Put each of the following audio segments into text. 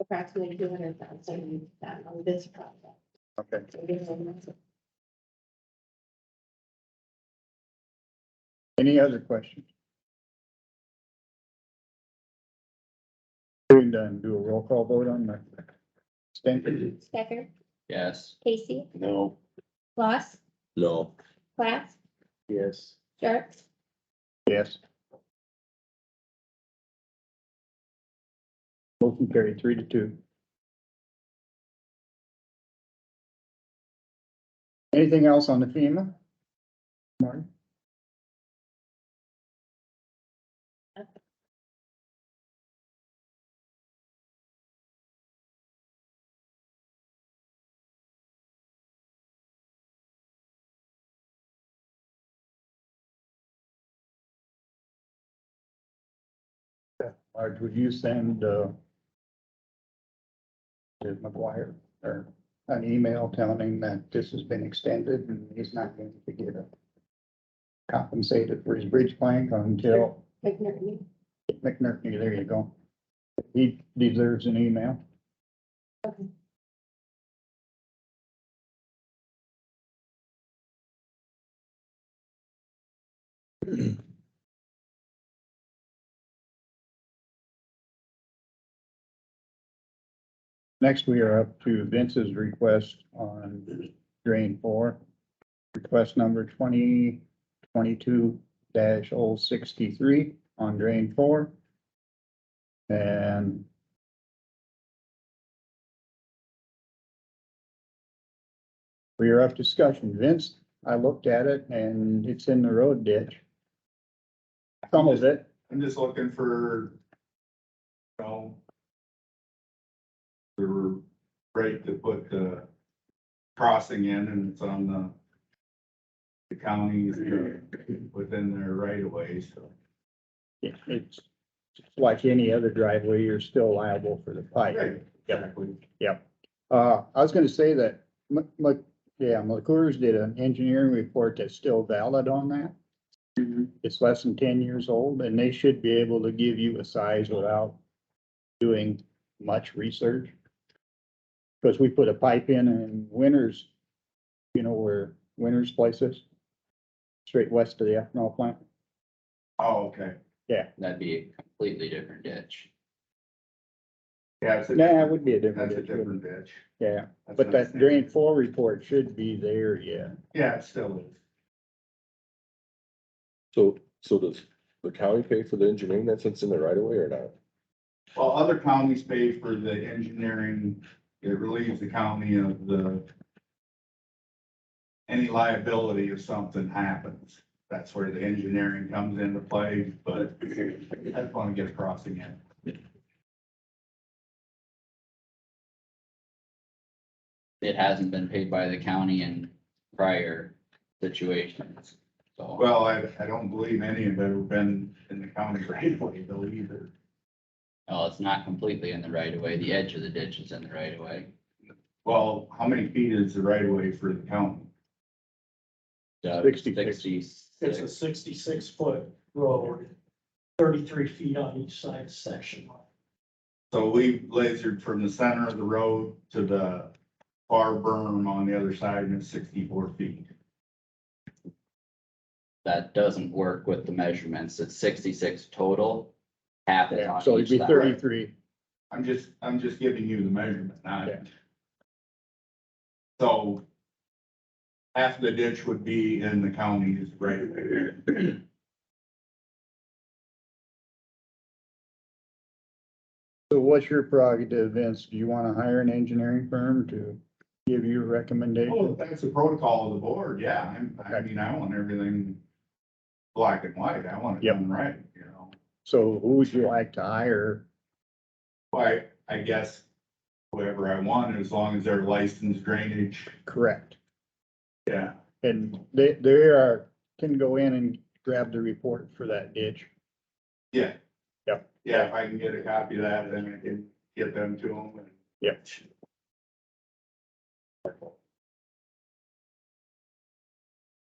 approximately two hundred thousand on um, this project. Okay, So we have- any other questions? Hearing done, do a roll call vote on that. Stanton? Stecker, Yes. Casey, No. Loss, No. Plath, Yes. Sharp, Yes. Motion carried three to two. Anything else on the FEMA? Martin? Marge, would you send, uh, to McGuire or an email telling him that this has been extended and he's not going to get a compensated for his bridge plank until McNerney. McNerney, there you go. He deserves an email. Okay. Next, we are up to Vince's request on drain four. Request number twenty twenty-two dash oh sixty-three on drain four. And we are up discussion. Vince, I looked at it and it's in the road ditch. Some of it, I'm just looking for, you know, the rate to put the crossing in and it's on the the counties within their right of way, so. it- it's it's like any other driveway, you're still liable for the pipe. Exactly. Uh, I was gonna say that, Mc Mc- yeah, McClure's did an engineering report that's still valid on that. Mm-hmm. It's less than ten years old and they should be able to give you a size without doing much research. Cause we put a pipe in in Winters, you know, where Winters places, straight west of the ethanol plant. Oh, okay. That'd be a completely different ditch. Yeah, it's a, Nah, it would be a different. that's a ditch, wouldn't different ditch. it? Yeah, That's but not- that drain four report should be there, yeah. Yeah, it still is. So, so does the county pay for the engineering that sits in the right of way or not? Well, other counties pay for the engineering, it relieves the county of the any liability if something happens. That's where the engineering comes into play, but I just want to get a crossing in. It hasn't been paid by the county in prior situations, so. Well, I, I don't believe any of it have been in the county right away though either. No, it's not completely in the right of way. The edge of the ditch is in the right of way. Well, how many feet is the right of way for the county? Uh, 66. It's a Sixty-six. sixty-six foot road, thirty-three feet on each side section line. So we lasered from the center of the road to the far berm on the other side and it's sixty-four feet. That doesn't work with the measurements. It's sixty-six total. Half is Yeah, on so it'd each be side. thirty-three. I'm just, I'm just giving you the measurement, not. Yeah. So. Half the ditch would be in the county's right of way. So what's your prerogative, Vince? Do you wanna hire an engineering firm to give you a recommendation? Oh, that's the protocol of the board, yeah, I'm, I mean, I want everything black and white, I want it Yep. done right, you know? So who would you like to hire? But I guess whoever I want, as long as they're licensed drainage, Correct. yeah, And they, they are, can go in and grab the report for that ditch. yeah, if I can get a copy of that, then I can get them to them. Yep.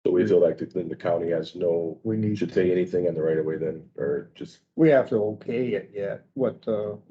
So we feel like then the county has no, We need, should say anything in the right of way then, or just we have to okay it yet, what, uh,